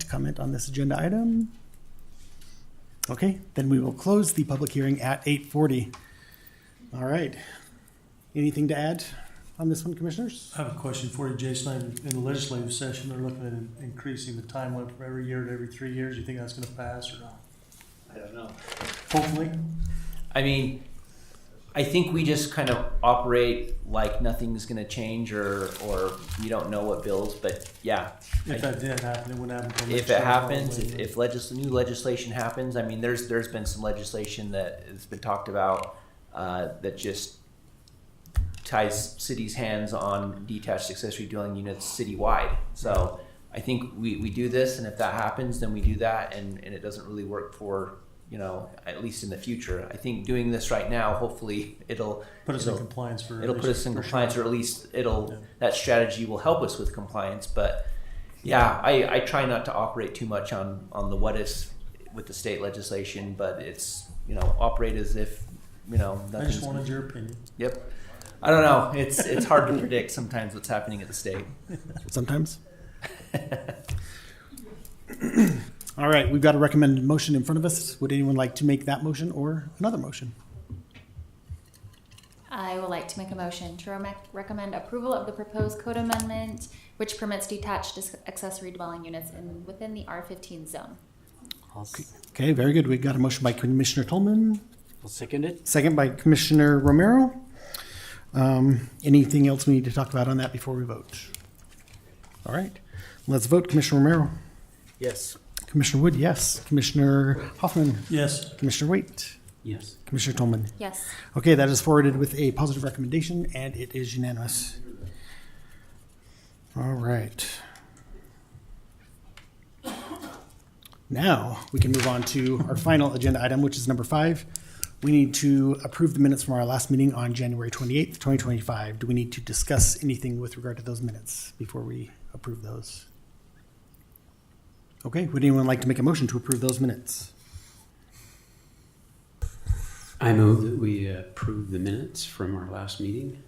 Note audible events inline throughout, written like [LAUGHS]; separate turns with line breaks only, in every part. to comment on this agenda item? Okay, then we will close the public hearing at 8:40. All right. Anything to add on this one, commissioners?
I have a question for you, Jason. In- In the legislative session, they're looking at in- increasing the time limit from every year to every three years. You think that's gonna pass or not?
I don't know.
Hopefully.
I mean, I think we just kind of operate like nothing's going to change or or we don't know what bills. But yeah,
If that did happen, it wouldn't happen. until next
if
year,
it happens, if,
probably.
if legis- new legislation happens, I mean, there's there's been some legislation that has been talked about uh, that just ties cities' hands on detached accessory dwelling units citywide. So I think we, we do this, and if that happens, then we do that, and, and it doesn't really work for you know at least in the future. I think doing this right now, hopefully, [LAUGHS] it'll
Put us in
it'll-
compliance for.
it'll put us in
for sure.
compliance, or at least it'll
Yeah.
that strategy will help us with compliance. But yeah, I, I try not to operate too much on on the what ifs with the state legislation, but it's you know operate as if you know
I
nothing's.
just wanted your opinion.
Yep. I don't know. It's it's
[LAUGHS]
hard to predict sometimes what's happening at the state.
Sometimes. [LAUGHS] All right, we've got a recommended motion in front of us. Would anyone like to make that motion or another motion?
I would like to make a motion to rem- recommend approval of the proposed code amendment, which permits detached dis- accessory dwelling units in, within the R fifteen zone.
I'll,
Okay, very good. We've got a motion by Commissioner Tolman,
will second it.
second by Commissioner Romero. Um, Anything else we need to talk about on that before we vote? All right, let's vote. Commissioner Romero.
Yes.
Commissioner Wood, yes. Commissioner Hoffman.
Yes,
Commissioner Waite.
Yes.
Commissioner Tolman.
Yes.
Okay, that is forwarded with a positive recommendation, and it is unanimous. All right. Now, we can move on to our final agenda item, which is number five. We need to approve the minutes from our last meeting on January 28th, 2025. Do we need to discuss anything with regard to those minutes before we approve those? Okay, would anyone like to make a motion to approve those minutes?
I move that we approve the minutes from our last meeting.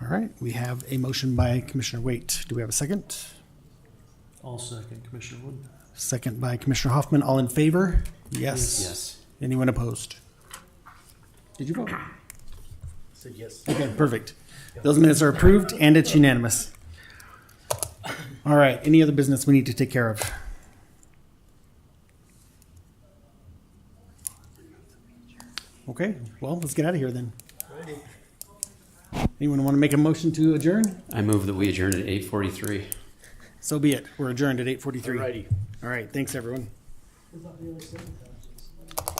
All right, we have a motion by Commissioner Waite. Do we have a second?
all second, Commissioner Wood.
Second by Commissioner Hoffman. All in favor? Yes.
Yes.
Anyone opposed? Did you vote?
Said yes.
Okay, perfect. Those minutes are approved and it's unanimous. All right, any other business we need to take care of? Okay, well, let's get out of here then. Anyone want to make a motion to adjourn?
I move that we adjourn at eight forty-three.
So be it. We're adjourned at 8:43. All right, thanks, everyone.